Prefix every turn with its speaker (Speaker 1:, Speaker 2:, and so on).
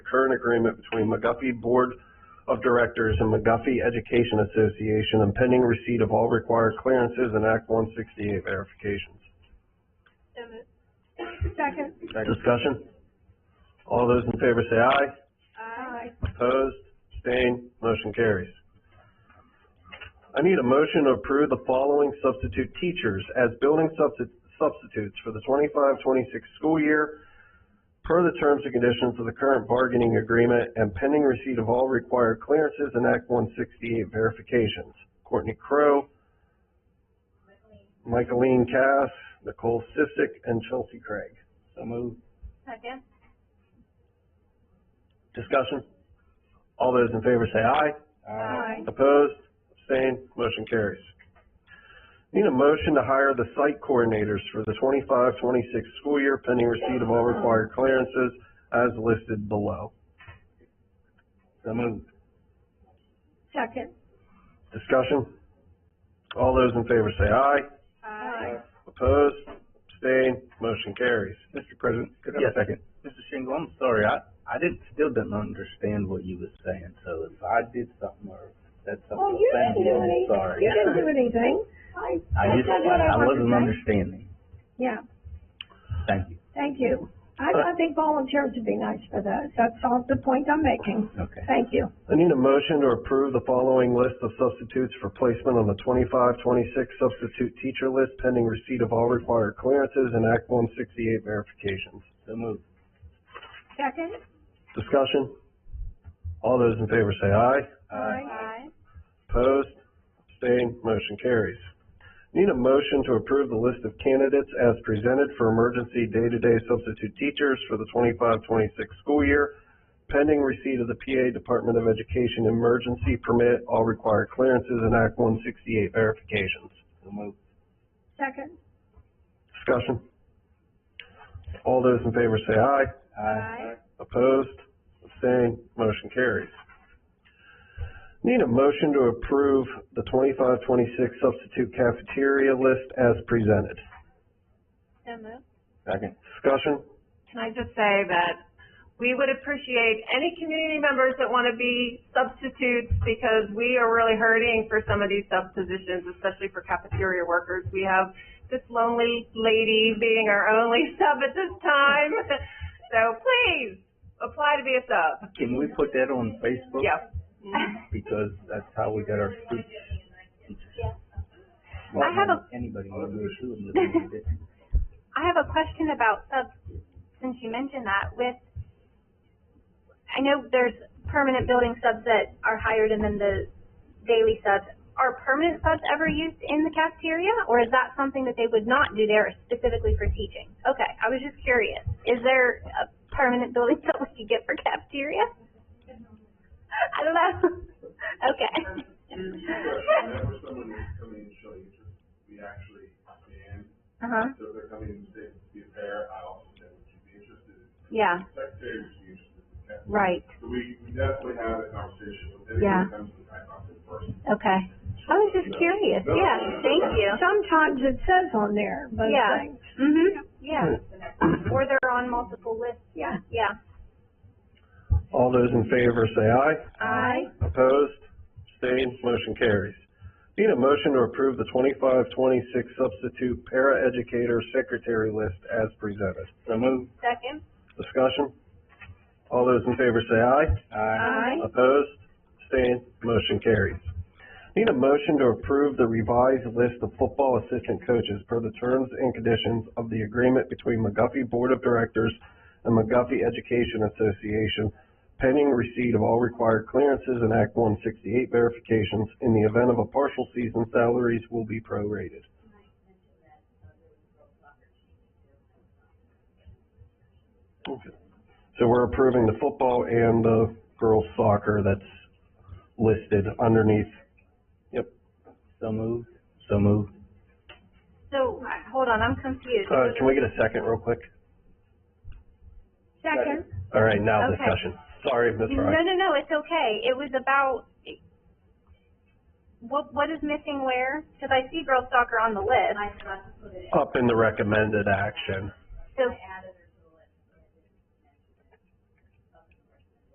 Speaker 1: current agreement between McGuffey Board of Directors and McGuffey Education Association and pending receipt of all required clearances and Act one sixty-eight verifications.
Speaker 2: So moved. Second.
Speaker 1: Discussion? All those in favor say aye.
Speaker 2: Aye.
Speaker 1: Opposed, abstained, motion carries. I need a motion to approve the following substitute teachers as building substi- substitutes for the 25-26 school year per the terms and conditions of the current bargaining agreement and pending receipt of all required clearances and Act one sixty-eight verifications. Courtney Crowe, Michaeline Cass, Nicole Sissick, and Chelsea Craig.
Speaker 3: So moved.
Speaker 2: Second.
Speaker 1: Discussion? All those in favor say aye. Opposed? Abstained? Motion carries. Need a motion to hire the site coordinators for the 25-26 school year pending receipt of all required clearances as listed below.
Speaker 3: So moved.
Speaker 2: Second.
Speaker 1: Discussion? All those in favor say aye.
Speaker 2: Aye.
Speaker 1: Opposed? Abstained? Motion carries.
Speaker 3: Mr. President, could I
Speaker 1: Yes.
Speaker 3: have a second? Mr. Shingle, I'm sorry, I, I didn't, still didn't understand what you was saying, so if I did something or said
Speaker 4: Oh,
Speaker 3: something
Speaker 4: you didn't do
Speaker 3: offensive, I'm
Speaker 4: any,
Speaker 3: sorry.
Speaker 4: you didn't do anything. I,
Speaker 3: I
Speaker 4: I
Speaker 3: just,
Speaker 4: said what I
Speaker 3: I wasn't
Speaker 4: wanted to say.
Speaker 3: understanding.
Speaker 4: Yeah,
Speaker 3: Thank you.
Speaker 4: thank you. I, I think volunteers would be nice for those. That's all the point I'm making.
Speaker 3: Okay.
Speaker 4: Thank you.
Speaker 1: I need a motion to approve the following list of substitutes for placement on the 25-26 substitute teacher list pending receipt of all required clearances and Act one sixty-eight verifications.
Speaker 3: So moved.
Speaker 4: Second?
Speaker 1: Discussion? All those in favor say aye.
Speaker 3: Aye.
Speaker 2: Aye.
Speaker 1: Opposed? Abstained? Motion carries. Need a motion to approve the list of candidates as presented for emergency day-to-day substitute teachers for the 25-26 school year, pending receipt of the PA Department of Education emergency permit, all required clearances and Act one sixty-eight verifications.
Speaker 3: So moved.
Speaker 4: Second?
Speaker 1: Discussion? All those in favor say aye.
Speaker 3: Aye.
Speaker 1: Opposed? Abstained? Motion carries. Need a motion to approve the 25-26 substitute cafeteria list as presented.
Speaker 2: So moved.
Speaker 3: Second.
Speaker 1: Discussion?
Speaker 5: Can I just say that we would appreciate any community members that want to be substitutes because we are really hurting for some of these sub positions, especially for cafeteria workers. We have this lonely lady being our only sub at this time. So please, apply to be a sub.
Speaker 3: Can we put that on Facebook?
Speaker 5: Yeah.
Speaker 3: Because that's how we got our speech.
Speaker 2: I have a-
Speaker 3: Anybody want to do it?
Speaker 2: I have a question about subs, since you mentioned that, with, I know there's permanent building subs that are hired and then the daily subs. Are permanent subs ever used in the cafeteria, or is that something that they would not do there specifically for teaching? Okay, I was just curious. Is there a permanent building sub we could get for cafeteria? I don't know.
Speaker 6: Whenever
Speaker 2: Okay.
Speaker 6: someone is coming in to show you, we actually scan,
Speaker 2: Uh-huh,
Speaker 6: so if they're coming in to be a pair, I also said, would you be interested?
Speaker 2: yeah,
Speaker 6: Secretary, would you be interested? in that?
Speaker 2: right,
Speaker 6: So we we definitely have a conversation with everyone
Speaker 2: Yeah.
Speaker 6: who comes to the high office first.
Speaker 2: okay. I was just curious, yeah, thank you.
Speaker 4: Sometimes it says on there, but
Speaker 2: Yeah.
Speaker 4: things.
Speaker 2: Mm-hmm, yeah. Or they're on multiple lists,
Speaker 4: Yeah.
Speaker 2: yeah.
Speaker 1: All those in favor say aye.
Speaker 2: Aye.
Speaker 1: Opposed? Abstained? Motion carries. Need a motion to approve the 25-26 substitute paraeducator secretary list as presented.
Speaker 3: So moved.
Speaker 2: Second?
Speaker 1: Discussion? All those in favor say aye.
Speaker 3: Aye.
Speaker 1: Opposed? Abstained? Motion carries. Need a motion to approve the revised list of football assistant coaches per the terms and conditions of the agreement between McGuffey Board of Directors and McGuffey Education Association pending receipt of all required clearances and Act one sixty-eight verifications. In the event of a partial season, salaries will be prorated. Okay. So we're approving the football and the girls soccer that's listed underneath.
Speaker 3: So moved. So moved.
Speaker 2: So, hold on, I'm confused.
Speaker 1: Uh, can we get a second real quick?
Speaker 2: Second?
Speaker 1: All right, now
Speaker 2: Okay.
Speaker 1: discussion. Sorry, Ms.
Speaker 2: No,
Speaker 1: Ryan.
Speaker 2: no, no, it's okay. It was about, what, what is missing where? Cause I see girls soccer on the list,
Speaker 1: Up in the recommended action.
Speaker 2: so